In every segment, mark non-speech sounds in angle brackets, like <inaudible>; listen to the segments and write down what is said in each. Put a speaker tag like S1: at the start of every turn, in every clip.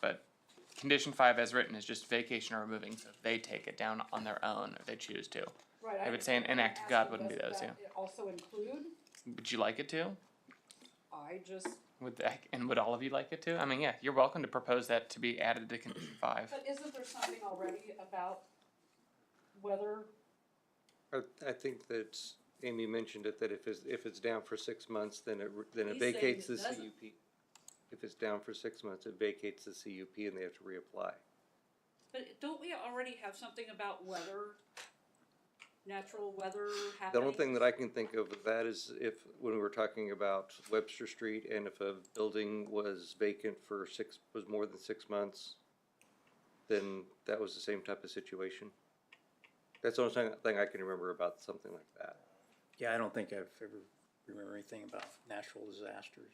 S1: but condition five as written is just vacation or removing, so if they take it down on their own if they choose to.
S2: Right.
S1: I would say an
S2: understand.
S1: enact of
S2: I'm
S1: God
S2: asking,
S1: wouldn't be
S2: does
S1: those,
S2: that Also include,
S1: Would you like it to?
S2: I just,
S1: Would that, <laughs> and would all of you like it to? I mean, yeah, you're welcome to propose that to be added to condition five.
S2: but isn't there something already about whether,
S3: I, I think that Amy mentioned it, that if it's, if it's down for six months, then it, re- then it
S4: He's saying
S3: vacates
S4: it
S3: the
S4: doesn't.
S3: CUP. If it's down for six months, it vacates the CUP and they have to reapply.
S4: But don't we already have something about weather, natural weather
S3: The
S4: happening?
S3: only thing that I can think of with that is if, when we were talking about Webster Street and if a building was vacant for six, was more than six months, then that was the same type of situation. That's the only thing, thing I can remember about something like that.
S5: Yeah, I don't think I've ever remember anything about natural disasters.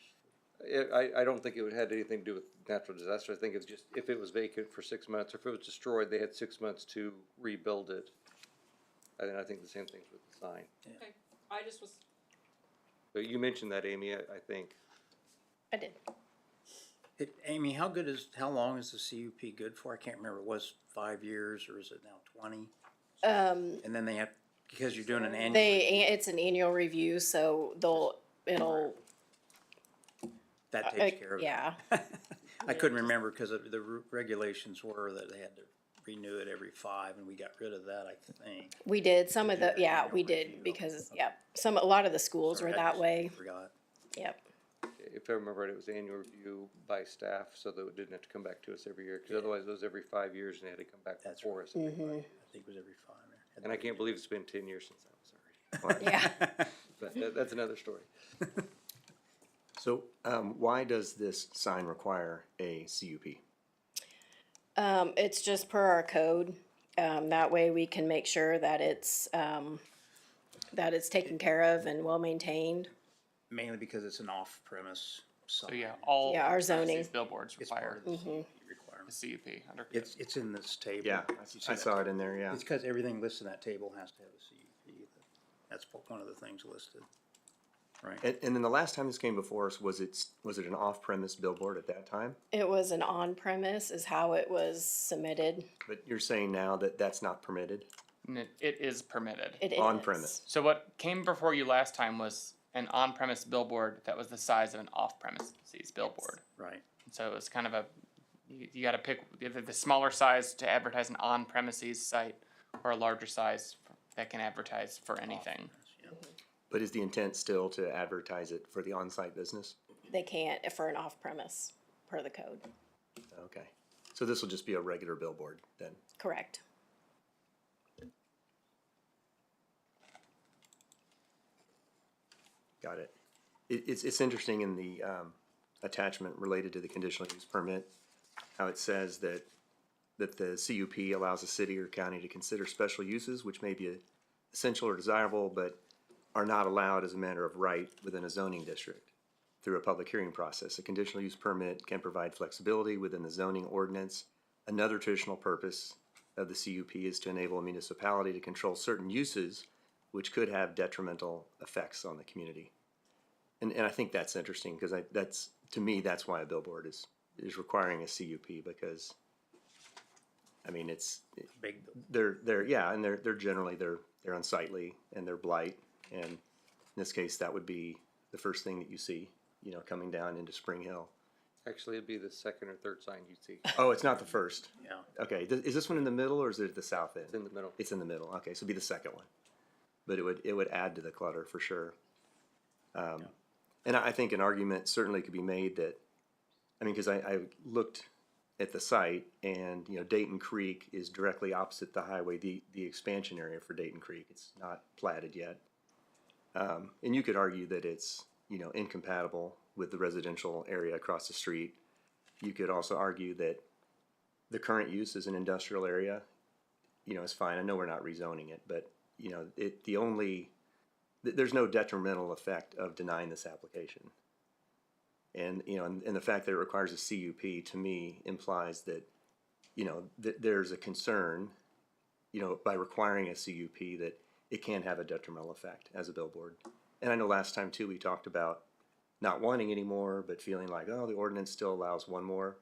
S3: It, I, I don't think it would- had anything to do with natural disaster. I think it's just, if it was vacant for six months, or if it was destroyed, they had six months to rebuild it. And I think the same thing's with the sign.
S4: Okay, I just was,
S3: But you mentioned that, Amy, I, I think.
S6: I did.
S5: It, Amy, how good is, how long is the CUP good for? I can't remember, was five years or is it now twenty?
S6: Um,
S5: And then they have, because you're doing an annual,
S6: they, it's an annual review, so they'll, it'll,
S5: that
S6: uh,
S5: takes care of it.
S6: yeah.
S5: I couldn't remember because the re- regulations were that they had to renew it every five and we got rid of that, I think.
S6: We did, some
S5: Did you
S6: of the,
S5: have an
S6: yeah,
S5: annual
S6: we
S5: review?
S6: did, because, yep, some, a lot of the schools
S5: Sorry,
S6: were
S5: I
S6: that
S5: just
S6: way,
S5: Forgot.
S6: yep.
S3: If I remember right, it was annual review by staff, so that it didn't have to come back to us every year, because otherwise it was every five years and they had to come back
S5: That's
S3: before us. every five years.
S5: I think it was every five. or-
S3: And I can't believe it's been ten years since I was already.
S5: <laughs>
S6: Yeah.
S3: But that, that's another story.
S7: So, um, why does this sign require a CUP?
S6: Um, it's just per our code, um, that way we can make sure that it's, um, that it's taken care of and well-maintained.
S5: Mainly because it's an off-premise sign.
S1: So yeah, all.
S6: Yeah, our
S1: of these
S6: zoning.
S1: Billboards
S5: It's part
S1: require
S5: of the CUP
S1: the
S6: Mm-hmm.
S5: requirement.
S1: CUP under. code.
S5: It's, it's in this table.
S7: Yeah,
S5: If you see
S7: I
S5: that
S7: saw it
S5: table.
S7: in there, yeah.
S5: It's because everything listed in that table has to have a CUP. That's po- one of the things listed. Right,
S7: And, and then the last time this came before us, was it, was it an off-premise billboard at that time?
S6: It was an on-premise is how it was submitted,
S7: But you're saying now that that's not permitted?
S1: And it- It is permitted.
S6: it is.
S7: On-premise.
S1: So what came before you last time was an on-premise billboard that was the size of an off-premises billboard.
S5: right.
S1: So it was kind of a, you, you gotta pick either the smaller size to advertise an on-premises site or a larger size f- that can advertise for anything.
S5: Yeah.
S7: But is the intent still to advertise it for the on-site business?
S6: They can't for an off-premise, per the code,
S7: Okay, so this will just be a regular billboard then?
S6: correct.
S7: Got it. It, it's, it's interesting in the, um, attachment related to the conditional use permit, how it says that, that the CUP allows a city or county to consider special uses which may be essential or desirable, but are not allowed as a matter of right within a zoning district through a public hearing process. A conditional use permit can provide flexibility within the zoning ordinance. Another traditional purpose of the CUP is to enable a municipality to control certain uses which could have detrimental effects on the community. And, and I think that's interesting because I, that's, to me, that's why a billboard is, is requiring a CUP because, I mean, it's,
S5: Big, bill-
S7: they're, they're, yeah, and they're, they're generally, they're, they're unsightly and they're blight. And in this case, that would be the first thing that you see, you know, coming down into Spring Hill.
S3: Actually, it'd be the second or third sign you'd see.
S7: Oh, it's not the first.
S5: yeah.
S7: Okay, th- is this one in the middle or is it at the south end?
S3: It's in the middle.
S7: It's in the middle. Okay, so it'd be the second one. But it would it would add to the clutter for sure. Um, And I, I think an argument certainly could be made that, I mean, because I, I looked at the site and you know Dayton Creek is directly opposite the highway, the the expansion area for Dayton Creek. It's not platted yet, um, and you could argue that it's you know incompatible with the residential area across the street. You could also argue that the current use is an industrial area you know, it's fine. I know we're not rezoning it, but you know, it, the only, th- there's no detrimental effect of denying this application. And, you know, and, and the fact that it requires a CUP to me implies that, you know, that there's a concern, you know, by requiring a CUP that it can have a detrimental effect as a billboard. And I know last time too, we talked about not wanting any more, but feeling like, oh, the ordinance still allows one more.